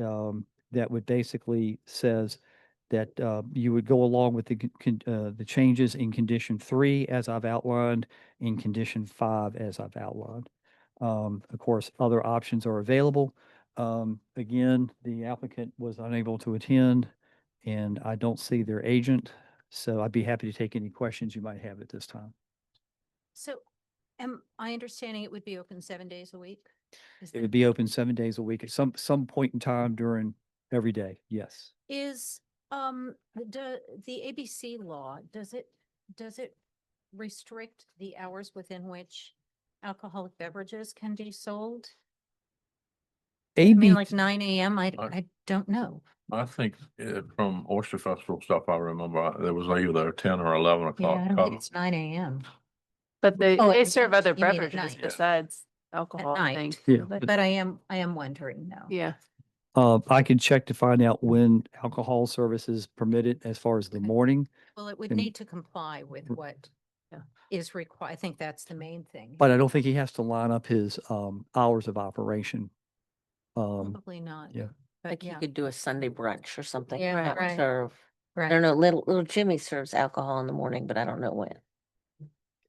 um, that would basically says that, uh, you would go along with the, con- con- uh, the changes in condition three as I've outlined, in condition five as I've outlined. Um, of course, other options are available. Um, again, the applicant was unable to attend and I don't see their agent. So I'd be happy to take any questions you might have at this time. So am I understanding it would be open seven days a week? Is It that- would be open seven days a week at some, some point in time during every day. Yes. Is, um, the, the ABC law, does it, does it restrict the hours within which alcoholic beverages can be sold? I AB, mean, like nine AM, I, Mark? I don't know. I think uh, from Oyster Festival stuff, I remember uh, there was either ten or eleven Yeah, I o'clock. don't cover. think it's nine AM, But they, Oh, they at serve night. other You mean at beverages night. besides alcohol, I night. think. Yeah, don't they? but I am, I am wondering now. Yeah, uh, I can check to find out when alcohol service is permitted as far as the Okay. morning. Well, it would And- Mm. need to comply with what uh, Yeah. is required. I think that's the main thing. But I don't think he has to line up his, um, hours of operation. Oh. Um, Probably not. yeah. but Like you yeah, could do a Sunday brunch or something. Yeah, that would right, Serve, I right. don't know, little, little Jimmy serves alcohol in the morning, but I don't know when.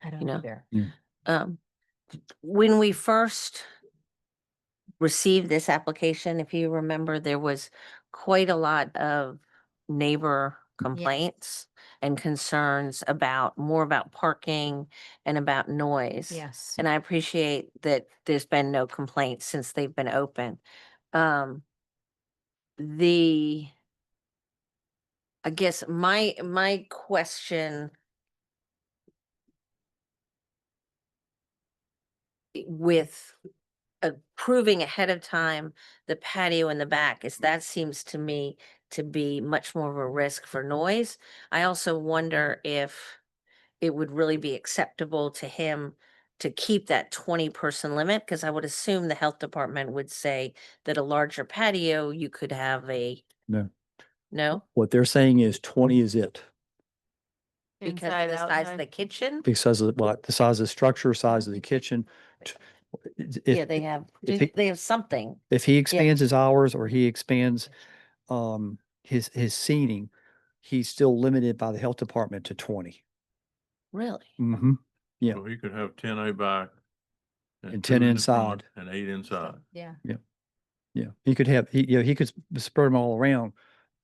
I don't know. either. Um, when we first received this application, if you remember, there was quite a lot of neighbor complaints and concerns about, more about parking and about noise. Yes. And I appreciate that there's been no complaints since they've been open. Um, the, I guess my, my question with approving ahead of time the patio in the back is that seems to me to be much more of a risk for noise. I also wonder if it would really be acceptable to him to keep that twenty person limit, because I would assume the health department would say that a larger patio, you could have a. No. No, what they're saying is twenty is it because inside, of the size of the outside. kitchen. because of what? The size of the structure, size of the kitchen. t- if- Yeah, they have, if he- they have something. If he expands his hours or he expands, um, his, his seating, he's still limited by the health department to twenty. Really? Mm-hmm. yeah. So you could have ten out back. And 10 two in the front inside. And eight inside. Yeah, Yeah, he could have, he, you know, he could s- spread them all around,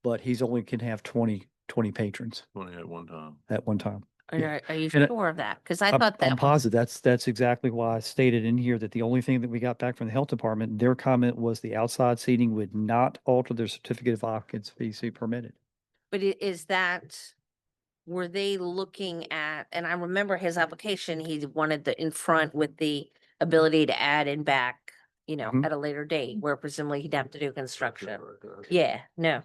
but he's only can have 20 20 patrons Twenty at one time. at one time. Are Yeah. you- are you And I- um sure of that? Because I I'm- thought I'm that. was- positive, that's, that's exactly why I stated in here that the only thing that we got back from the health department, their comment was the outside seating would not alter their certificate of occupancy permitted. But i- is that, were they looking at, and I remember his application, he wanted the in front with the ability to add and back, you know, Mhm. at a later date, where presumably he'd have to do Yeah, construction. right there. Yeah, no,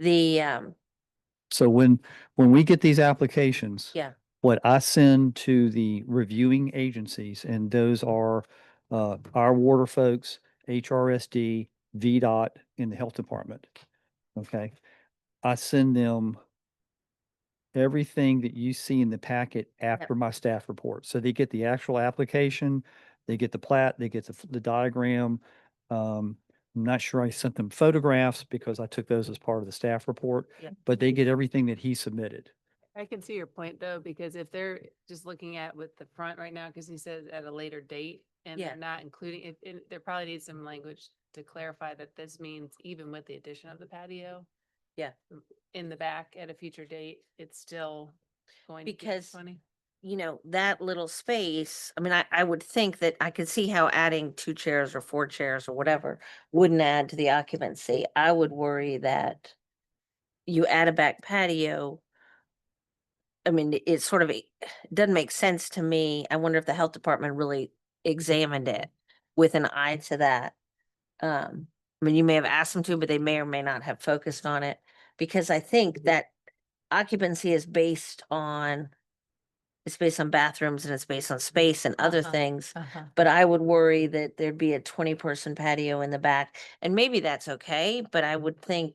the, um, So when, when we get these applications. Yeah. What I send to the reviewing agencies, and those are, uh, our water folks, HRSD, VDOT, and the Health Department. Okay, I send them everything that you see in the packet after my staff report. So they get the actual application, they get the plat, they get the, f- the diagram. Um, I'm not sure I sent them photographs because I took those as part of the staff report but they get everything that he submitted. I can see your point though, because if they're just looking at with the front right now, because he says at a later date and Yeah. they're not including, it, it, there probably needs some language to clarify that this means even with the addition of the patio. Yeah. m- In the back at a future date, it's still going to be Because twenty. you know, that little space, I mean, I, I would think that I could see how adding two chairs or four chairs or whatever wouldn't add to the occupancy. I would worry that you add a back patio. I mean, it- it sort of, it doesn't make sense to me. I wonder if the health department really examined it with an eye to that. Um, I mean, you may have asked them to, but they may or may not have focused on it. Because I think that occupancy is based on it's based on bathrooms and it's based on space and other Uh-huh. things. uh-huh. But I would worry that there'd be a twenty person patio in the back. And maybe that's okay, but I would think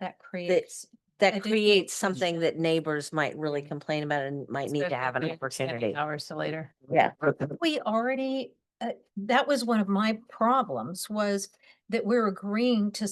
That creates, I that do think creates it's something that neighbors might really Mm. complain about and might need to Especially have if an you're extending opportunity. Hours to later. Yeah. we already, uh, that was one of my problems was that we're agreeing to